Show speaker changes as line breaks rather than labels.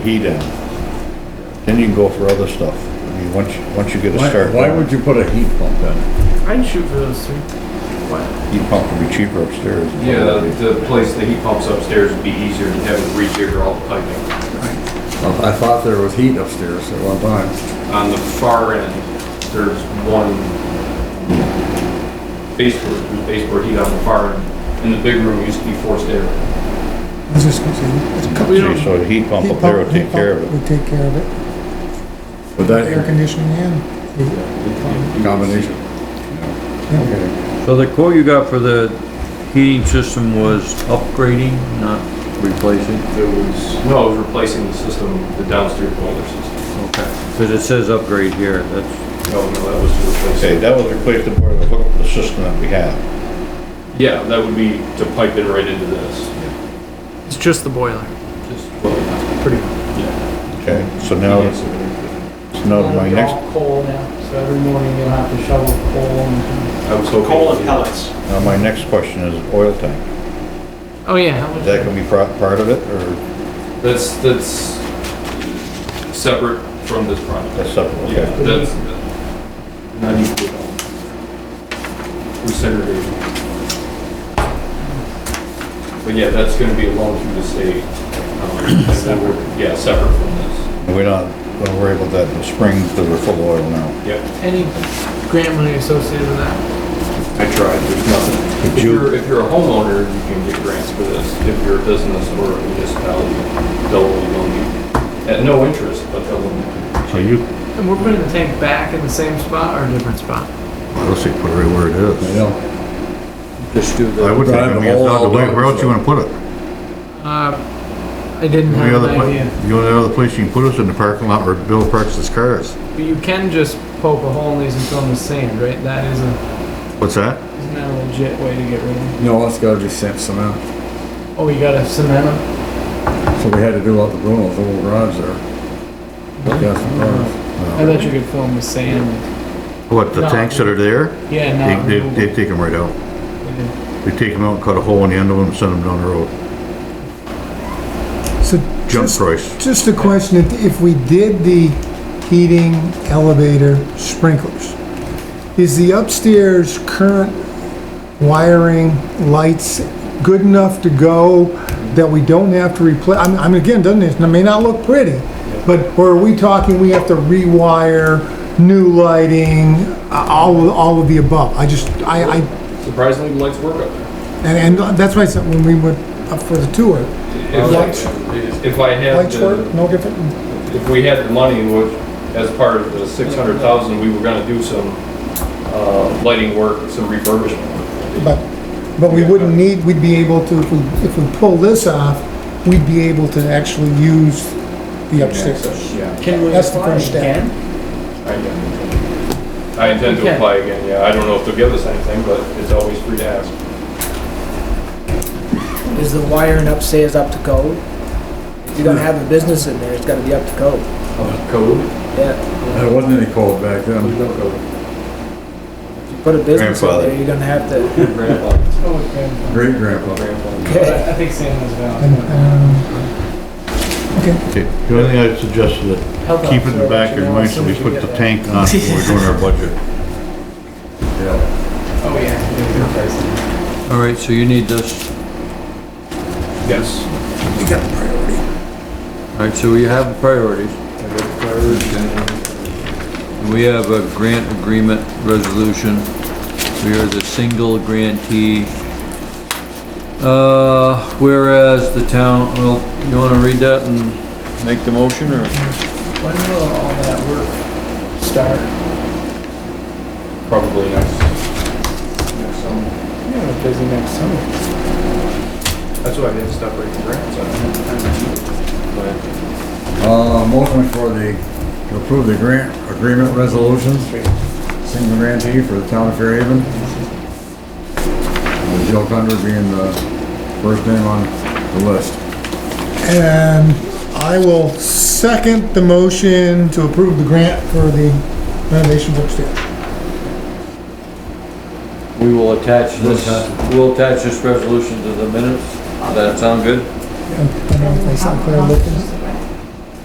heat in. Then you can go for other stuff. I mean, once, you- once you get a
Why,
start,
why would you put a heat pump in?
I'd shoot for those three. What?
heat pump would be cheaper upstairs.
Yeah, the the place, the heat pumps upstairs would be easier than having to rejigger all the piping.
I I thought there was heat upstairs at one time.
On the far end, there's one baseboard, there's baseboard heat on the far end. And the big room used to be forced air.
I was just gonna say, it's a couple.
We
See, so the heat pump up there will take care of it.
Would take care of it,
But
air
that
conditioning and,
combination.
So the quote you got for the heating system was upgrading, not replacing?
It was, no, it was replacing the system, the downstairs boiler system.
Okay. Cause it says upgrade here, that's,
No, no, that was to replace
Okay,
it.
that would replace the boiler, hook up the system that we have.
Yeah, that would be to pipe it right into this.
It's just the boiler.
Just, well,
Pretty much.
yeah.
Okay, so now, it's so now Oh, my
They're
next,
all Coal now, so every morning you'll have to shovel coal and
I was hoping.
Coal and pellets.
now my next question is oil tank.
Oh yeah. how
Is
much-
that gonna be pro- part of it, or
That's, that's separate from this project.
that's separate?
Yeah,
Okay.
that's not equal. We segregated. But yeah, that's gonna be a loan through the state. um, and then we're- Yeah, separate from this.
We're not gonna worry about that in the spring, because we're full of oil now.
Yep.
Any grant money associated with that?
I tried, there's nothing. If
you-
you're, if you're a homeowner, you can get grants for this. If you're a business or a municipality, they'll only loan you, at no interest, but they'll loan you.
So you,
And we're putting the tank back in the same spot or a different spot?
let's see, put it right where it
I
is.
know.
just do
I
the,
would think, I mean, it's out of the way, where else you wanna put it?
Uh, I didn't
The
have
other,
an
pla-
idea.
the only other place you can put us in the parking lot where Bill parks his cars.
But you can just poke a hole in these and fill them with sand, right? That is a
What's that?
isn't that a legit way to get rid of them?
No, that's gotta be sand cement.
Oh, you gotta cement them.
So we had to do out the Bruno's old garage there. Yes, garage.
I thought you could fill them with sand.
What, the
No.
tanks that are there?
Yeah,
They,
not
they,
removable.
they take them right out.
Yeah.
They take them out and cut a hole in the end of them and send them down the road.
yeah. So
Jump
just,
price.
just a question, if, if we did the heating, elevator, sprinklers, is the upstairs current wiring, lights good enough to go that we don't have to replace, I'm, I'm again, doesn't it, it may not look pretty, but, or are we talking we have to rewire, new lighting, uh, all, all of the above? I just, I, I,
Surprisingly, the lights work up there.
And, and that's why I said when we went up for the tour,
If
Lights-
I- If I had
lights
the,
were no different.
if we had the money, which, as part of the six hundred thousand, we were gonna do some, uh, lighting work, some refurbishment.
But, but we wouldn't need, we'd be able to, if we, if we pull this off, we'd be able to actually use the upstairs.
Yeah,
Can we
That's the
apply
first step.
again?
I get it. I intend to apply again, yeah, I don't know if they'll give us anything, but it's always free to ask.
Is the wiring upstairs up to code? If you're gonna have a business in there, it's gotta be up to code.
Code?
Yeah,
There wasn't any coal back then.
No code.
if you put a business in
Grandfather.
there, you're gonna have to.
Grandfather,
Oh, okay.
Great grandpa.
But I think sand is
And,
valid.
um,
Okay, The only thing I suggested that
Health
keep it in
officer,
the back of your
you know,
mind
as
so
soon
we
as you
put
get
the
that.
tank on when we're doing our budget.
Yeah.
Oh, yeah.
alright, so you need this,
yes.
alright, so we have priorities. We have a grant agreement resolution. We are the single grantee. Uh, whereas the town, well, you wanna read that and make the motion, or?
When will all that work start?
Probably next, next summer.
Yeah, we're busy next summer.
That's why I didn't stop writing grants, I don't know.
Uh, motion for the, to approve the grant agreement resolution, single grantee for the town of Fairhaven. Uh, Joe Thunder being the first name on the list.
And I will second the motion to approve the grant for the renovations upstairs.
We will attach this, we'll attach this resolution to the minutes. Does that sound good?
I don't know if I sound clear, but-